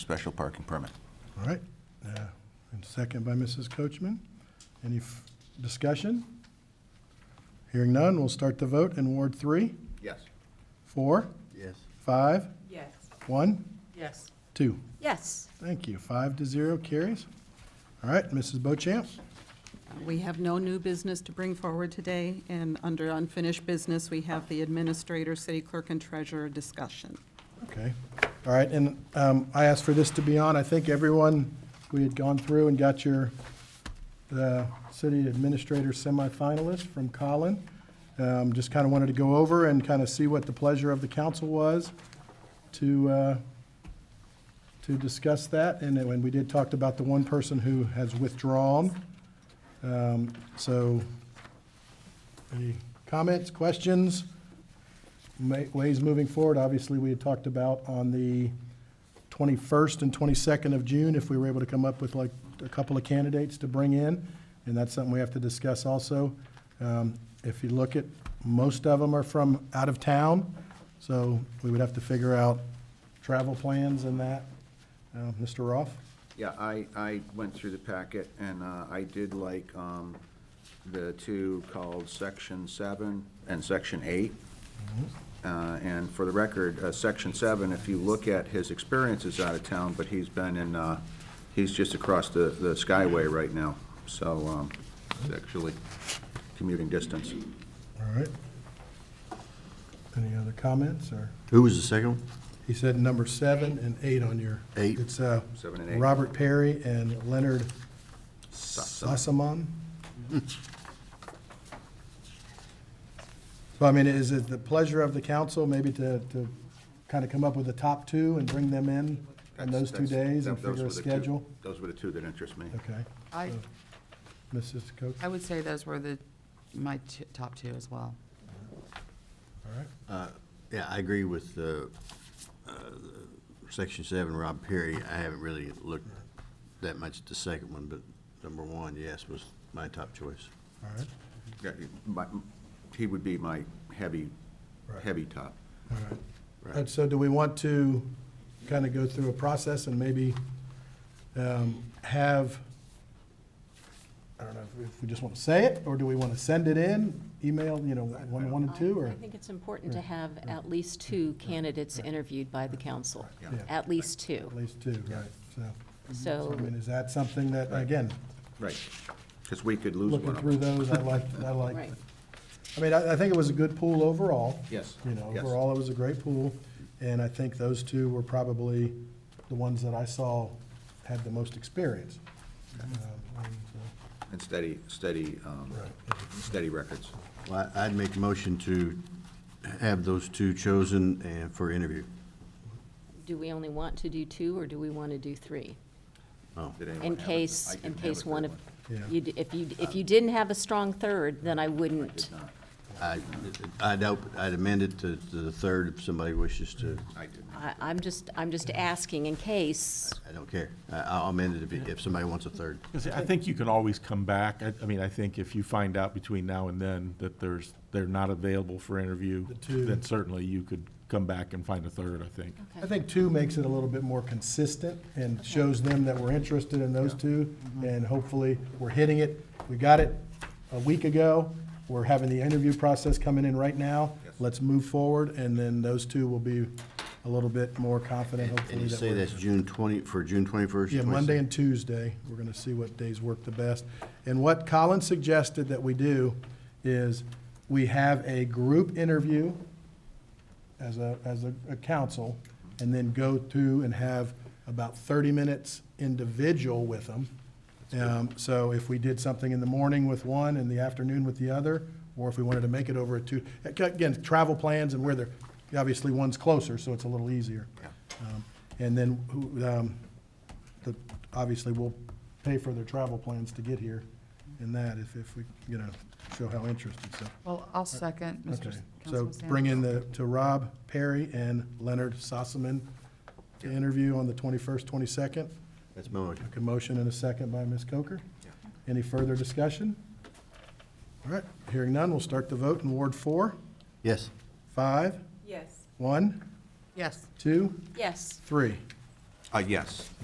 special parking permit. All right, uh, and second by Mrs. Coachman. Any f- discussion? Hearing none, we'll start the vote in Ward three, Yes. four, Yes. five, Yes. one, Yes. two. Yes, Thank you. Five to zero carries. All right, Mrs. Bochamp. We have no new business to bring forward today, and under unfinished business, we have the administrator, city clerk, and treasurer discussion. Okay, all right, and um, I asked for this to be on. I think everyone, we had gone through and got your, the city administrator semifinalist from Colin. Um, Just kind of wanted to go over and kind of see what the pleasure of the council was to, uh, to discuss that. And then when we did talked about the one person who has withdrawn. Um, So, any comments, questions? ma- ways moving forward, obviously, we had talked about on the 21st and 22nd of June, if we were able to come up with like a couple of candidates to bring in, and that's something we have to discuss also. Um, If you look at, most of them are from out of town, so we would have to figure out travel plans and that. Uh, Mr. Roth? Yeah, I, I went through the packet, and uh, I did like um, the two called Section 7 and Section 8. Mm-hmm. Uh, And for the record, uh, Section 7, if you look at his experience, is out of town, but he's been in, uh, he's just across the, the Skyway right now, so um, it's actually commuting distance. All right. Any other comments, or? Who was the second one? He said number seven and eight on your. Eight. It's uh, Seven and eight. Robert Perry and Leonard Sossamon. So I mean, is it the pleasure of the council maybe to, to kind of come up with the top two and bring them in on those two That's- days and that- those figure were a the two- schedule? Those were the two that interest me. Okay. I, Mrs. Coates, I would say those were the, my t- top two as well. all right. Yeah, I agree with uh, uh, Section 7, Rob Perry. I haven't really looked that much at the second one, but number one, yes, was my top choice. All right. Yeah, my- He would be my heavy, Right. heavy top. All right. Right. And so do we want to kind of go through a process and maybe um, have, I don't know, if- if we just want to say it, or do we want to send it in, email, you know, one, one and I two, or? I think it's important to have at least two candidates interviewed by the council. Yeah. At least two. At least two, right, so. So I mean, is that something that, again, Right. Because we could lose looking one of through them. those, I like, I like. Right. I mean, I, I think it was a good pool overall. Yes, You know, yes. overall, it was a great pool, and I think those two were probably the ones that I saw had the most experience. Um, and so- And steady, steady, um, Right. steady records. Well, I- I'd make a motion to have those two chosen and for interview. do we only want to do two, or do we want to do three? Oh, Did anyone In have a- I case, in didn't have a case third Uh, one of, Yeah. you d- if you, if you didn't have a strong third, then I wouldn't. Did not. I- I'd op- I'd amend it to to the third if somebody wishes to. I did not. I, I'm just, I'm just asking in case, I don't care. I- I'll amend it if it- if somebody wants a third. Because I think you can always come back. I, I mean, I think if you find out between now and then that there's, they're not available for interview, The two. then certainly you could come back and find a third, I think. I think two makes it a little bit more consistent and shows them that we're interested in those two, Mm-hmm. and hopefully, we're hitting it. We got it a week ago, we're having the interview process coming in right now. Yes. Let's move forward, and then those two will be a little bit more confident, hopefully. And you that say we're- that's June 20, for June 21st? Yeah, Monday and Tuesday, we're gonna see what days work the best. And what Colin suggested that we do is we have a group interview as a, as a, a council, and then go to and have about thirty minutes individual with them. Um, so if we did something in the morning with one, in the afternoon with the other, or if we wanted to make it over a two, again, travel plans and where they're, obviously one's closer, so it's a little easier. Um, And then, who, um, the, obviously, we'll pay for their travel plans to get here and that if, if we, you know, show how interested, so. Well, I'll second, Mr. Okay, S- so Councilman Sanders. bring in the, to Rob Perry and Leonard Sossaman to interview on the 21st, 22nd. That's my motion. A motion and a second by Ms. Coker. Any further discussion? All right, hearing none, we'll start the vote in Ward 4, Yes. 5, Yes. 1, Yes, 2, yes, 3. Uh, yes.